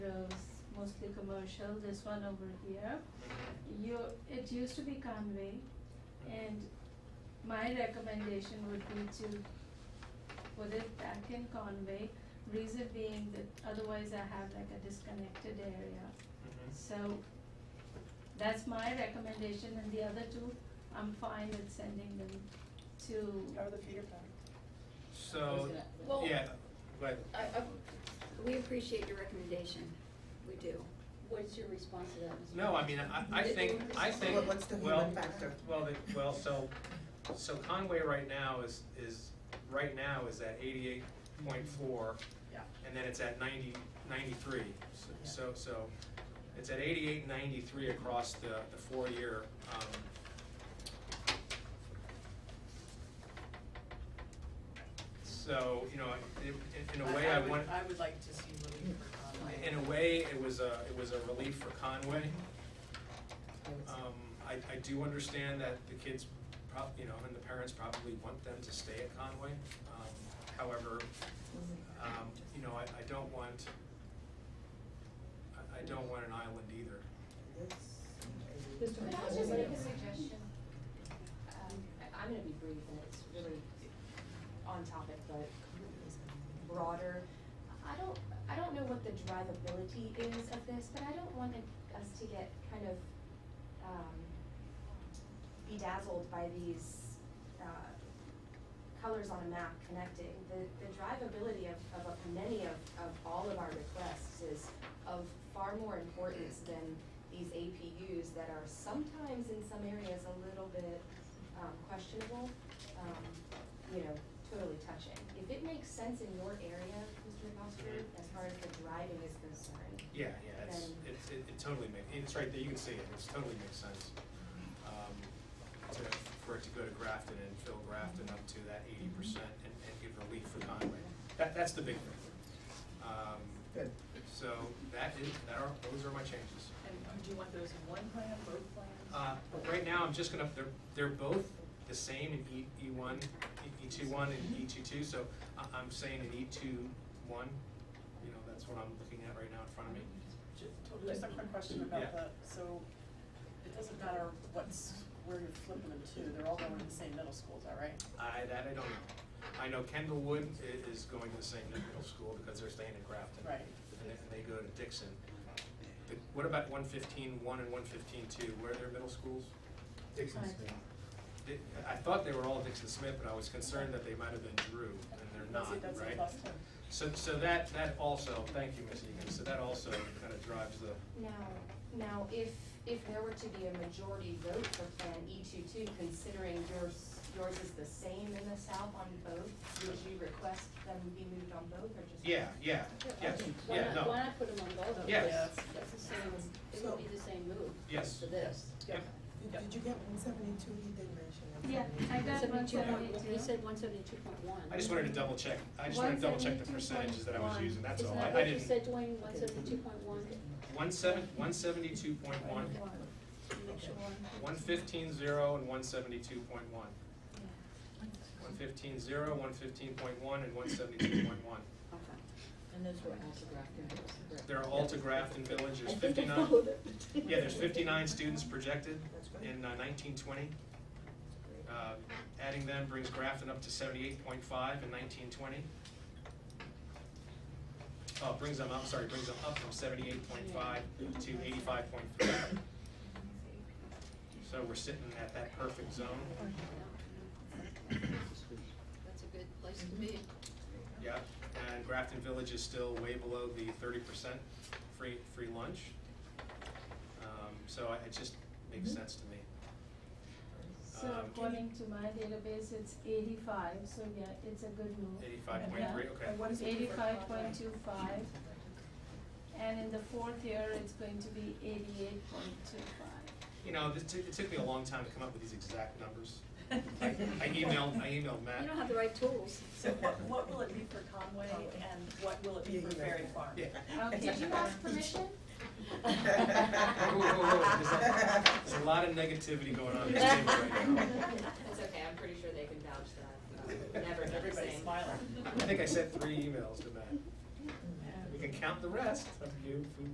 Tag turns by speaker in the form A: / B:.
A: Social, this one over here. You, it used to be Conway, and my recommendation would be to put it back in Conway. Reason being that otherwise I have like a disconnected area.
B: Mhm.
A: So that's my recommendation and the other two, I'm fine with sending them to,
C: Or the feeder pack.
B: So,
D: Well-
B: yeah, but,
D: I, I,
E: We appreciate your recommendation, we do.
D: what's your response to that, Mr.
B: no, I mean, I, I think, I think, well,
C: What- What's the human factor?
B: well, the- well, so, so Conway right now is, is, right now is at eighty-eight point four.
C: Yeah.
B: And then it's at ninety, ninety-three, So-
C: Yeah.
B: so, so, it's at eighty-eight, ninety-three across the, the four-year, um. So, you know, in, in a way, I
C: would-
B: want.
C: I would like to see relief for Conway.
B: In a way, it was a, it was a relief for Conway. Um, I, I do understand that the kids prob, you know, and the parents probably want them to stay at Conway. Um, However, um, you know, I, I don't want, I, I don't want an island either.
F: Could I just make a suggestion? Um, I- I'm gonna be brief and it's really on topic, but broader. I don't, I don't know what the drivability is of this, but I don't want it- us to get kind of, um, bedazzled by these, uh, colors on a map connecting. The, the drivability of, of many of, of all of our requests is of far more importance than these APUs that are sometimes in some areas a little bit, um, questionable, um, you know, totally touching. If it makes sense in your area, Mr. McCosker, as far as the driving is concerned,
B: Mm-hmm. Yeah, yeah, it's, it's, it it totally makes, it's right there, you can see it, it's totally makes sense. um, To, for it to go to Grafton and fill Grafton up to that eighty percent and, and give relief for Conway. That, that's the big thing. Um,
G: Good.
B: So that is, that are, those are my changes.
C: And um, do you want those in one plan, both plans?
B: Uh, right now, I'm just gonna, they're, they're both the same in E, E one, E two one and E two two, so I, I'm saying in E two one, you know, that's what I'm looking at right now in front of me.
C: Ju- totally, Just a quick question about
B: Yeah.
C: the, so it doesn't matter what's, where you're flipping them to, they're all going to the same middle school, is that right?
B: I, that I don't know. I know Kendall Wood i- is going to the same middle school because they're staying in Grafton.
C: Right.
B: And they, and they go to Dixon. But what about one fifteen one and one fifteen two, where are their middle schools?
A: Dixon's Right.
B: Di- I thought they were all Dixon Smith, but I was concerned that they might have been Drew, and they're
C: That's
B: not,
C: a-
B: right?
C: that's a plus two.
B: So, so that, that also, thank you, Ms. Egan, so that also kind of drives the,
F: Now, now, if, if there were to be a majority vote for Plan E two two, considering yours, yours is the same in the south on both, would you request them be moved on both or just?
B: yeah, yeah, yes,
D: Why
B: yeah,
D: not, why
B: no,
D: not put them on both of them?
B: Yes.
C: Yeah.
D: That's the same, it would be the same move
B: yes.
D: for this.
B: Yep.
C: Did- did
H: you get one seventy-two, he did mention
A: yeah, I got one
D: Seventy-two
A: seventy-two.
D: point- He said one seventy-two point one.
B: I just wanted to double check, I just wanted to double check the percentages that I was using, that's all, I, I didn't.
D: Isn't that what you said, Dwayne, one seventy-two point one?
B: One seven, one seventy-two point one, one fifteen zero, and one seventy-two point one. One fifteen zero, one fifteen point one, and one seventy-two point one.
D: Okay.
E: And those were all to Grafton Hills, correct?
B: They're all to Grafton Village, there's fifty-nine, yeah, there's fifty-nine students projected in nineteen twenty. Uh, adding them brings Grafton up to seventy-eight point five in nineteen twenty. Oh, brings them up, sorry, brings them up from seventy-eight point five to eighty-five point three. So we're sitting at that perfect zone,
D: That's a good place to be.
B: yeah, and Grafton Village is still way below the thirty percent free, free lunch. Um, so I- it just makes sense to me.
A: So
B: Um,
A: according to my database, it's eighty-five, so yeah, it's a good move.
B: Eighty-five point three,
A: Yeah.
B: okay.
C: And what is it for
A: Eighty-five
C: Conway?
A: point two five. And in the fourth year, it's going to be eighty-eight point two five.
B: You know, this took, it took me a long time to come up with these exact numbers. I, I emailed, I emailed
D: You
B: Matt.
D: don't have the right tools.
C: So what, what will it be for Conway and what will it be for Berry Farm?
B: Yeah.
A: Okay.
F: Did you ask permission?
B: Whoa, whoa, whoa, there's a, there's a lot of negativity going on in this table right now.
F: It's okay, I'm pretty sure they can vouch that, um, never done the
C: Everybody's
F: same.
C: smiling.
B: I think I sent three emails to Matt. We can count the rest of you food